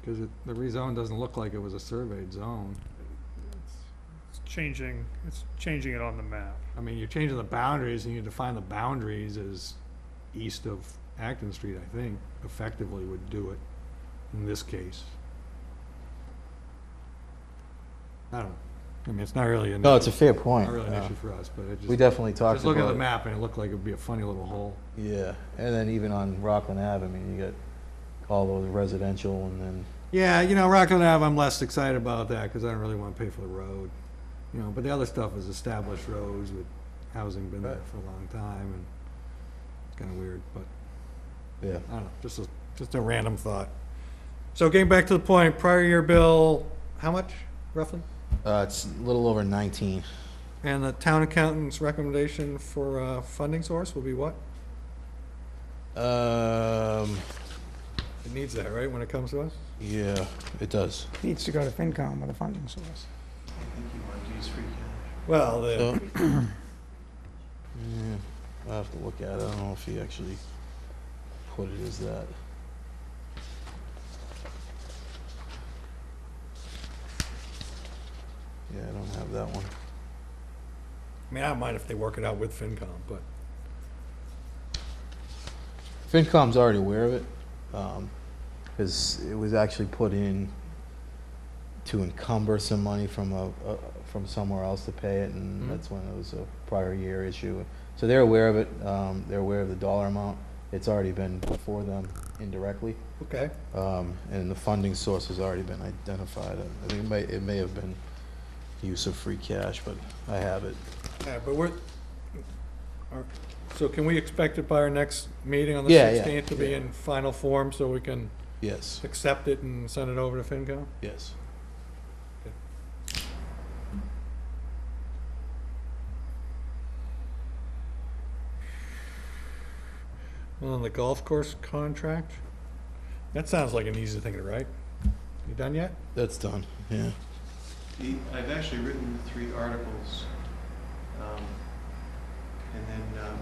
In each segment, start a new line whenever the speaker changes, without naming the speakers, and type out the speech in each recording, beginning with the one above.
Because the rezone doesn't look like it was a surveyed zone.
It's changing, it's changing it on the map.
I mean, you're changing the boundaries, and you define the boundaries as east of Acton Street, I think, effectively would do it in this case. I don't, know. I mean, it's not really an,
No,
not
it's a fair point.
really an
Uh,
issue for us, but it
We
just,
definitely talked
just look at
about
the
it.
map, and it looked like it'd be a funny little hole.
Yeah, and then even on Rockland Ave, I mean, you got all those residential and then,
Yeah, you know, Rockland Ave, I'm less excited about that, because I don't really want to pay for the road. You know, but the other stuff is established roads with housing been there
Right.
for a long time, and it's kind of weird, but.
yeah.
I don't know, just a, just a random thought. So getting back to the point, prior year bill, how much roughly?
Uh, it's a little over 19.
And the town accountant's recommendation for, uh, funding source will be what?
Um,
It needs that, right, when it comes to us?
yeah, it does.
Needs to go to FinCom with a funding source.
Well,
So,
the,
yeah, I'll have to look at it. I don't know if he actually put it as that. Yeah, I don't have that one.
I mean, I don't mind if they work it out with FinCom, but,
FinCom's already aware of it, because it was actually put in to encumber some money from a, a from somewhere else to pay it, and
Mhm.
that's when it was a prior year issue. So they're aware of it. Um, they're aware of the dollar amount. It's already been before them indirectly,
okay.
um, and the funding source has already been identified. I think it may it may have been use of free cash, but I have it.
Yeah, but we're, are- so can we expect it by our next meeting on the
Yeah, yeah,
sixteenth to be
yeah.
in final form so we can
Yes.
accept it and send it over to FinCom?
Yes.
On the golf course contract? That sounds like an easy thing to write. You done yet?
That's done. Yeah.
The- I've actually written three articles. um, And then um,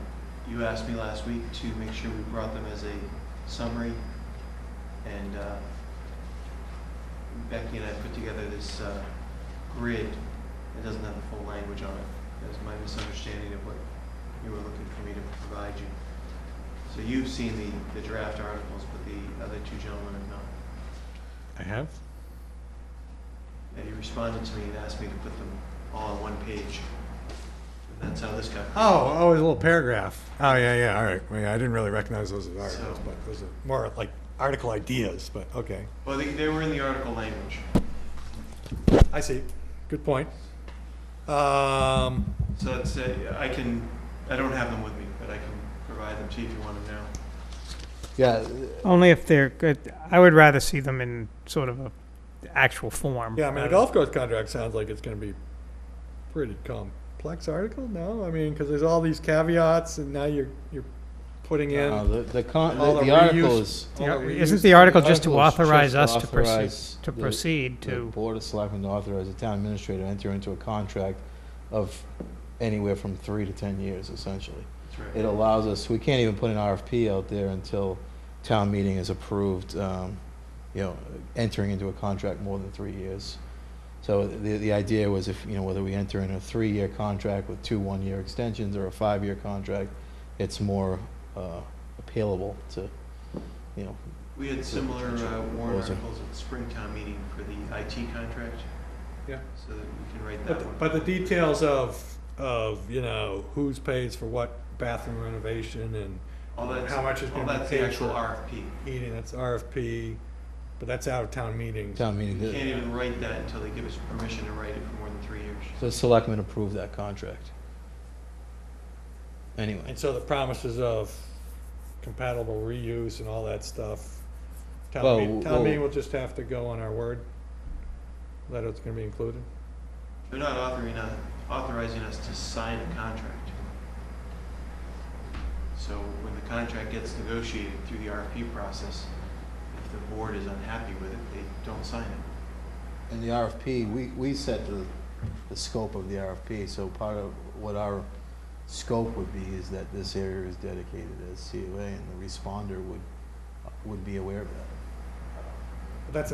you asked me last week to make sure we brought them as a summary. And uh, Becky and I put together this uh, grid that doesn't have the full language on it. That's my misunderstanding of what you were looking for me to provide you. So you've seen the, the draft articles, but the other two gentlemen have not.
I have.
And he responded to me and asked me to put them all on one page. And that's how this got.
Oh, oh, a little paragraph. Oh, yeah, yeah, all right. Well, yeah, I didn't really recognize those as articles,
So-
but those are more like article ideas, but okay.
Well, they, they were in the article language.
I see. Good point. Um,
So it's, uh, I can, I don't have them with me, but I can provide them to you if you want them now.
Yeah.
Only if they're good. I would rather see them in sort of a actual form. Uh,
yeah, I mean,
rather-
the golf course contract sounds like it's gonna be pretty complex article, no? I mean, cause there's all these caveats and now you're, you're putting in
Uh,
all
the the, con-
All
the,
the
the article
reuse-
is.
the
Yeah,
reuse-
Isn't the article just to
article is
authorize
just
us to proceed,
authorize
to
the-
proceed
The
to?
Board of Selectmen to authorize the town administrator to enter into a contract of anywhere from three to 10 years, essentially.
That's
It
right.
allows us, we can't even put an RFP out there until town meeting is approved, um, you know, entering into a contract more than three years. So the, the idea was if, you know, whether we enter in a three-year contract with two one-year extensions or a five-year contract, it's more uh, appealable to, you know,
We had similar uh, warrant
Those are-
articles at the Springtown meeting for the IT contract.
Yeah.
So that we can write that
But,
one.
but the details of, of, you know, who's pays for what bathroom renovation and
All that's,
how much is
all
gonna be
that's the
paid
actual
for.
RFP.
heating, that's RFP, but that's out of town meetings.
town meeting.
You can't even write that until they give us permission to write it for more than three years.
The selectmen approved that contract. Anyway,
And so the promises of compatible reuse and all that stuff,
Well,
town meeting, town
well-
meeting will just have to go on our word that it's gonna be included.
They're not authoring, us- authorizing us to sign a contract. So when the contract gets negotiated through the RFP process, if the board is unhappy with it, they don't sign it.
in the RFP, we, we set the, the scope of the RFP, so part of what our scope would be is that this area is dedicated as COA, and the responder would, would be aware of that.